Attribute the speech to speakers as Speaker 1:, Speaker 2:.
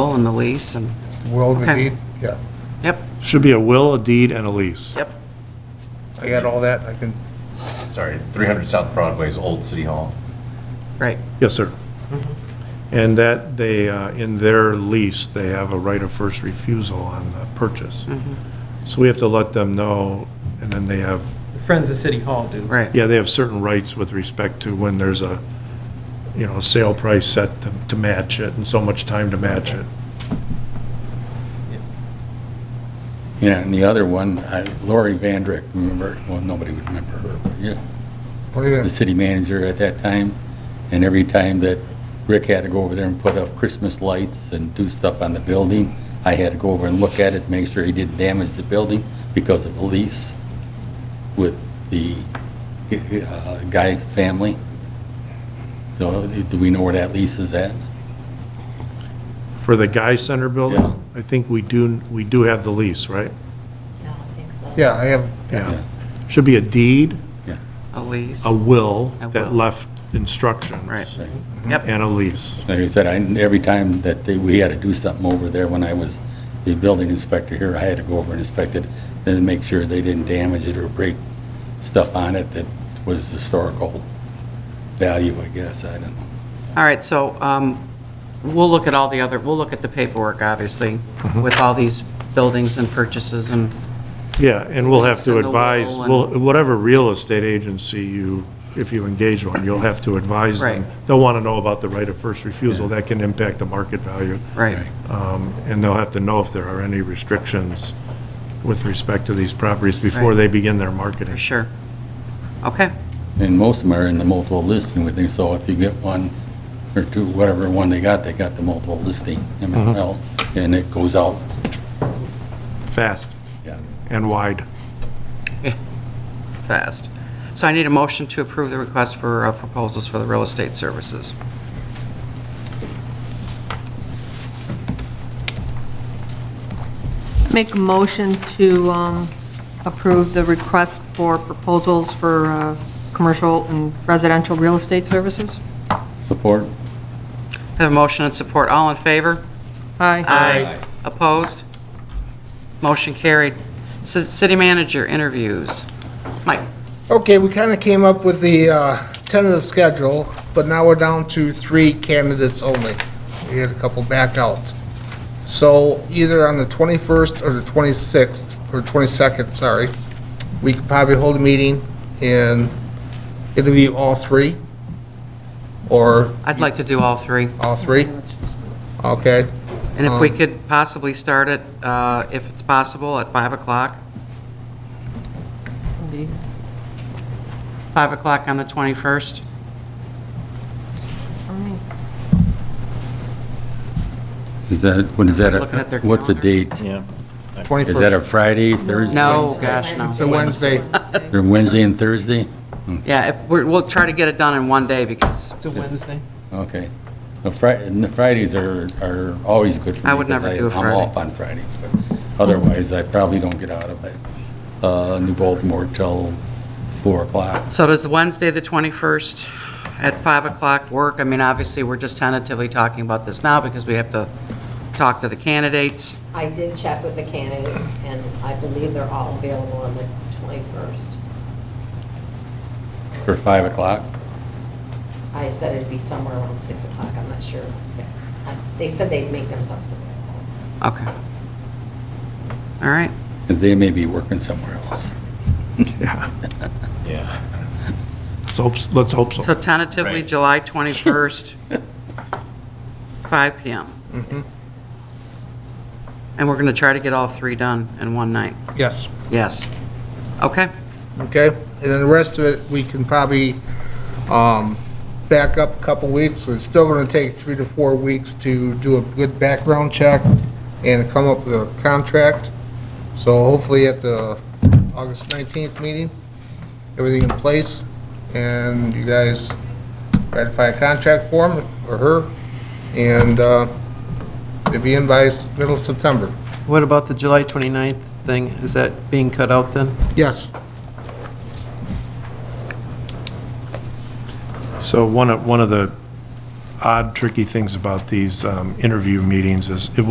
Speaker 1: Oh, and the lease and,
Speaker 2: Will and the
Speaker 1: Okay.
Speaker 2: deed, yeah.
Speaker 1: yep,
Speaker 3: Should be a will, a deed, and a lease.
Speaker 1: yep.
Speaker 2: I got all that, I can,
Speaker 4: Sorry, 300 South Broadway is Old City Hall.
Speaker 1: Right,
Speaker 3: Yes, sir.
Speaker 1: Mm-hmm.
Speaker 3: And that they, uh, in their lease, they have a right of first refusal on the purchase.
Speaker 1: Mm-hmm.
Speaker 3: So we have to let them know, and then they have,
Speaker 5: The Friends of City Hall do.
Speaker 1: right.
Speaker 3: yeah, they have certain rights with respect to when there's a, you know, a sale price set to- to match it, and so much time to match it.
Speaker 6: Yeah, and the other one, I- Lori Vandrick, remember, well, nobody would remember her, but yeah,
Speaker 2: what do you,
Speaker 6: the city manager at that time. And every time that Rick had to go over there and put up Christmas lights and do stuff on the building, I had to go over and look at it, make sure he didn't damage the building because of the lease with the uh, Guy family. So do we know where that lease is at?
Speaker 3: For the Guy Center
Speaker 6: Yeah.
Speaker 3: building, I think we do, we do have the lease, right?
Speaker 7: Yeah, I think so.
Speaker 2: yeah, I have,
Speaker 3: Yeah. Should be a deed,
Speaker 1: A lease,
Speaker 3: a will
Speaker 1: A
Speaker 3: that
Speaker 1: will.
Speaker 3: left instructions.
Speaker 1: Right.
Speaker 6: Right.
Speaker 1: yep,
Speaker 3: And a lease.
Speaker 6: Like I said, I, every time that they- we had to do something over there, when I was the building inspector here, I had to go over and inspect it, then make sure they didn't damage it or break stuff on it that was historical value, I guess, I don't know.
Speaker 1: all right, so, um, we'll look at all the other, we'll look at the paperwork, obviously, with all these buildings and purchases and,
Speaker 3: Yeah, and we'll have to
Speaker 1: Send a
Speaker 3: advise,
Speaker 1: will and-
Speaker 3: well, whatever real estate agency you, if you engage one, you'll have to advise them.
Speaker 1: Right.
Speaker 3: They'll want to know about the right of first refusal, that can impact the market value.
Speaker 1: right,
Speaker 3: Um, And they'll have to know if there are any restrictions with respect to these properties before
Speaker 1: Right.
Speaker 3: they begin their marketing.
Speaker 1: for sure. Okay,
Speaker 6: And most of them are in the multiple listing with them, so if you get one or two, whatever one they got, they got the multiple listing, MML, and it goes out.
Speaker 3: Fast
Speaker 6: Yeah.
Speaker 3: and wide.
Speaker 1: fast. So I need a motion to approve the request for uh, proposals for the real estate services.
Speaker 7: Make a motion to um, approve the request for proposals for uh, commercial and residential real estate services.
Speaker 6: Support?
Speaker 1: Have a motion and support, all in favor?
Speaker 7: Aye.
Speaker 1: Aye. Opposed? Motion carried. C- City manager interviews. Mike?
Speaker 2: okay, we kind of came up with the uh, tentative schedule, but now we're down to three candidates only. We had a couple back out. So either on the 21st or the 26th, or 22nd, sorry, we could probably hold a meeting and interview all three, or
Speaker 1: I'd like to do all three.
Speaker 2: all three. Okay,
Speaker 1: And if we could possibly start it, uh, if it's possible, at 5 o'clock, 5 o'clock on the 21st?
Speaker 6: Is that, what is that? a-
Speaker 1: Looking at their
Speaker 6: What's the
Speaker 1: calendar.
Speaker 6: date?
Speaker 2: 21st.
Speaker 6: Is that a Friday, Thursday?
Speaker 1: No, gosh, no.
Speaker 2: It's a Wednesday.
Speaker 6: They're Wednesday and Thursday?
Speaker 1: Yeah, if, we're- we'll try to get it done in one day, because
Speaker 5: It's a Wednesday.
Speaker 6: Okay. Well, Fri- and the Fridays are, are always good for me.
Speaker 1: I would
Speaker 6: 'cause
Speaker 1: never do a
Speaker 6: I'm
Speaker 1: Friday.
Speaker 6: off on Fridays, but otherwise I probably don't get out of it, uh, New Baltimore till four o'clock.
Speaker 1: So does Wednesday, the 21st, at 5 o'clock work? I mean, obviously, we're just tentatively talking about this now because we have to talk to the candidates.
Speaker 8: I did check with the candidates, and I believe they're all available on the 21st.
Speaker 6: For five o'clock?
Speaker 8: I said it'd be somewhere around 6 o'clock, I'm not sure. I- They said they'd make themselves available.
Speaker 1: Okay. All right.
Speaker 6: Because they may be working somewhere else.
Speaker 3: Yeah.
Speaker 4: Yeah.
Speaker 3: Let's hope, let's hope
Speaker 1: So
Speaker 3: so.
Speaker 1: tentatively,
Speaker 4: Right.
Speaker 1: July 21st, 5 PM. And we're going to try to get all three done in one night.
Speaker 2: Yes.
Speaker 1: Yes. Okay,
Speaker 2: okay? And then the rest of it, we can probably um, back up a couple weeks. It's still going to take three to four weeks to do a good background check and come up with a contract. So hopefully at the August 19th meeting, everything in place, and you guys ratify a contract for him or her, and uh, it'll be in by s- middle of September.
Speaker 5: What about the July 29th thing? Is that being cut out then?
Speaker 2: Yes.
Speaker 3: So one of, one of the odd, tricky things about these um, interview meetings is, it